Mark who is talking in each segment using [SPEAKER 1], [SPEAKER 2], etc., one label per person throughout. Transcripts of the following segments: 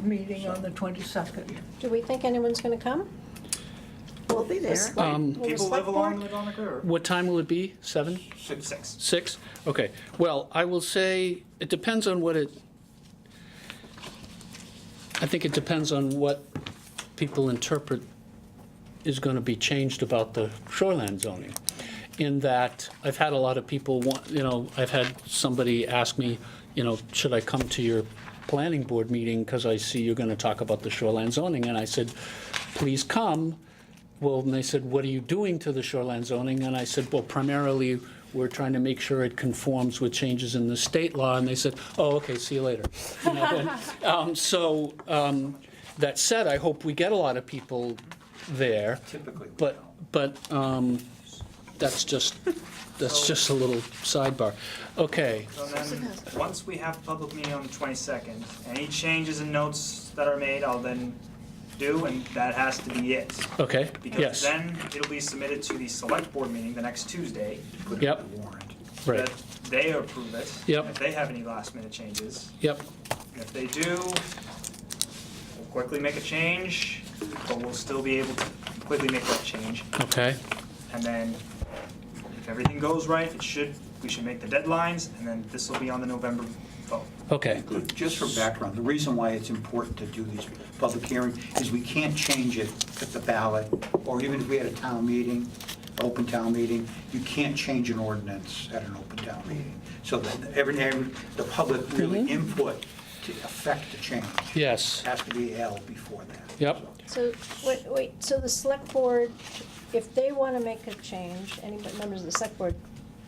[SPEAKER 1] meeting on the 22nd.
[SPEAKER 2] Do we think anyone's going to come?
[SPEAKER 1] We'll be
[SPEAKER 2] The
[SPEAKER 1] there.
[SPEAKER 2] select- will the
[SPEAKER 3] People
[SPEAKER 2] select
[SPEAKER 3] live along the
[SPEAKER 2] board-
[SPEAKER 3] Madonica or
[SPEAKER 4] What time will it be? Seven?
[SPEAKER 3] six, six?
[SPEAKER 4] Six? Okay. Well, I will say, it depends on what it, I think it depends on what people interpret is going to be changed about the shoreline zoning. In that, I've had a lot of people, want- you know, I've had somebody ask me, you know, should I come to your planning board meeting because I see you're going to talk about the shoreline zoning? And I said, please come. Well, and they said, what are you doing to the shoreline zoning? And I said, well, primarily, we're trying to make sure it conforms with changes in the state law. And they said, oh, okay, see you later. You know, and, um, So, um, that said, I hope we get a lot of people there.
[SPEAKER 3] Typically we
[SPEAKER 4] But, but um, that's just, that's
[SPEAKER 3] So-
[SPEAKER 4] just a little sidebar. Okay,
[SPEAKER 3] So then, once we have public meeting on the twenty-second, any changes and notes that are made, I'll then do, and that has to be it.
[SPEAKER 4] okay,
[SPEAKER 3] Because
[SPEAKER 4] yes,
[SPEAKER 3] then it'll be submitted to the select board meeting the next Tuesday.
[SPEAKER 4] yep, right,
[SPEAKER 3] that They approve it.
[SPEAKER 4] Yep.
[SPEAKER 3] If they have any last minute changes,
[SPEAKER 4] yep,
[SPEAKER 3] And If they do, we'll quickly make a change, but we'll still be able to quickly make that change.
[SPEAKER 4] okay,
[SPEAKER 3] And then if everything goes right, it should, we should make the deadlines, and then this will be on the November vote.
[SPEAKER 4] okay,
[SPEAKER 5] Just for background, the reason why it's important to do these public hearings is we can't change it at the ballot, or even if we had a town meeting, open town meeting, you can't change an ordinance at an open town meeting. So that every, every- the public really input to affect the change
[SPEAKER 4] yes,
[SPEAKER 5] has to be held before that.
[SPEAKER 4] Yep.
[SPEAKER 2] So, wait, wait, so the select board, if they want to make a change, any members of the select board,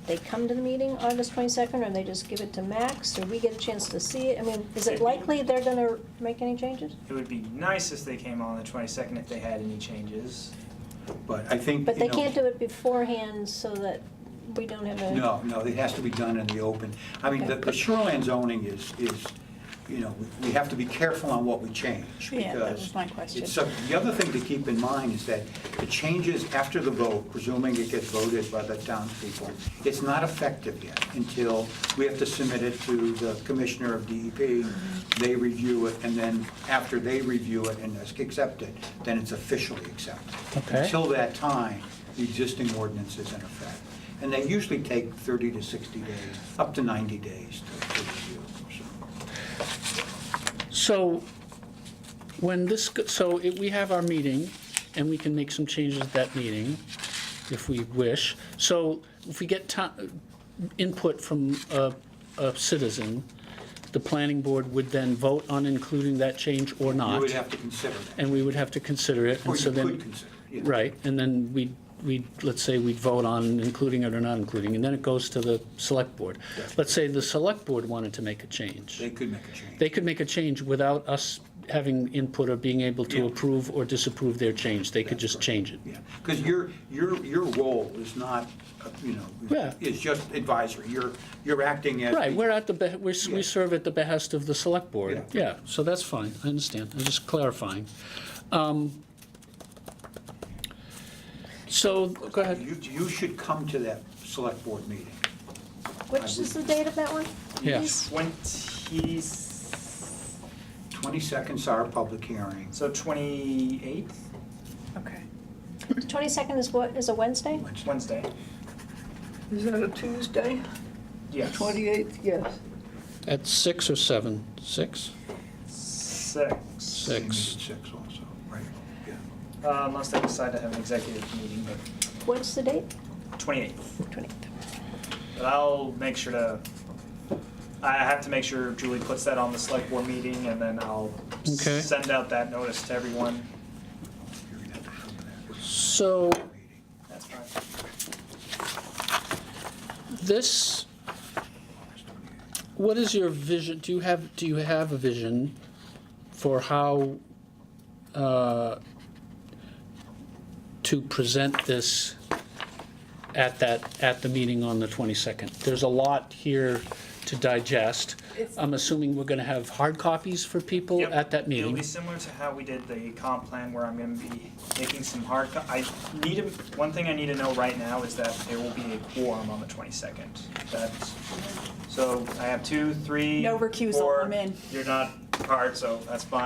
[SPEAKER 2] they come to the meeting August 22nd, or they just give it to Max, or we get a chance to see it? I mean, is it likely they're going to make any changes?
[SPEAKER 3] It would be nice if they came on the twenty-second if they had any changes.
[SPEAKER 5] But I think,
[SPEAKER 2] But
[SPEAKER 5] you
[SPEAKER 2] they
[SPEAKER 5] know-
[SPEAKER 2] can't do it beforehand so that we don't have a...
[SPEAKER 5] No, no, it has to be done in the open. I mean, the- the shoreline zoning is, is, you know, we have to be careful on what we change.
[SPEAKER 6] Yeah, that
[SPEAKER 5] because
[SPEAKER 6] was my question.
[SPEAKER 5] it's sub- The other thing to keep in mind is that the changes after the vote, presuming it gets voted by the townspeople, it's not effective yet until we have to submit it to the commissioner of DEP.
[SPEAKER 6] Mm-hmm.
[SPEAKER 5] They review it, and then after they review it and accept it, then it's officially accepted.
[SPEAKER 4] Okay.
[SPEAKER 5] Until that time, the existing ordinance is in effect. And they usually take 30 to 60 days, up to 90 days to to review. so.
[SPEAKER 4] So when this, go- so it- we have our meeting, and we can make some changes at that meeting if we wish. So if we get ti- input from a a citizen, the planning board would then vote on including that change or not.
[SPEAKER 5] You would have to consider that.
[SPEAKER 4] And we would have to consider it. and
[SPEAKER 5] Or you
[SPEAKER 4] so then-
[SPEAKER 5] could consider it, yeah.
[SPEAKER 4] Right, and then we, we, let's say we vote on including it or not including, and then it goes to the select board. Let's say the select board wanted to make a change.
[SPEAKER 5] They could make a change.
[SPEAKER 4] They could make a change without us having input or being able to
[SPEAKER 5] Yeah.
[SPEAKER 4] approve or disapprove their change. They could just change it.
[SPEAKER 5] Yeah, because your, your, your role is not, uh, you
[SPEAKER 4] Yeah.
[SPEAKER 5] know, is just advisory. You're, you're acting as.
[SPEAKER 4] Right, we're at the, be- we're s- we
[SPEAKER 5] Yeah.
[SPEAKER 4] serve at the behest of the select board.
[SPEAKER 5] Yeah.
[SPEAKER 4] Yeah, so that's fine, I understand, I'm just clarifying. Um, So, go ahead.
[SPEAKER 5] You, you should come to that select board meeting.
[SPEAKER 2] Which is the date of that one?
[SPEAKER 4] Yeah.
[SPEAKER 2] Please?
[SPEAKER 3] Twenty,
[SPEAKER 5] 22nd's our public hearing.
[SPEAKER 3] so twenty-eighth,
[SPEAKER 6] Okay.
[SPEAKER 2] 22nd is what, is a Wednesday?
[SPEAKER 3] Wednesday?
[SPEAKER 1] Is that a Tuesday?
[SPEAKER 3] Yes.
[SPEAKER 1] 28th, yes.
[SPEAKER 4] At six or seven? Six?
[SPEAKER 3] Six.
[SPEAKER 4] Six.
[SPEAKER 5] They meet at Six also, right, yeah.
[SPEAKER 3] Uh, Unless they decide to have an executive meeting, but
[SPEAKER 2] What's the date?
[SPEAKER 3] twenty-eighth.
[SPEAKER 2] 20th.
[SPEAKER 3] But I'll make sure to, I have to make sure Julie puts that on the select board meeting, and then I'll
[SPEAKER 4] Okay.
[SPEAKER 3] send out that notice to everyone.
[SPEAKER 5] You're gonna have to come to that
[SPEAKER 4] So
[SPEAKER 5] meeting.
[SPEAKER 3] That's fine.
[SPEAKER 4] this, what is your vision, do you have, do you have a vision for how uh, to present this at that, at the meeting on the 22nd? There's a lot here to digest.
[SPEAKER 6] It's-
[SPEAKER 4] I'm assuming we're going to have hard copies for people
[SPEAKER 3] Yep.
[SPEAKER 4] at that
[SPEAKER 3] It'll
[SPEAKER 4] meeting.
[SPEAKER 3] be similar to how we did the comp plan, where I'm gonna be making some hard, co- I need, to- one thing I need to know right now is that there will be a quorum on the twenty-second. That's, so I have two, three,
[SPEAKER 6] No recusal,
[SPEAKER 3] four.
[SPEAKER 6] I'm in.
[SPEAKER 3] You're not hard, so that's fine.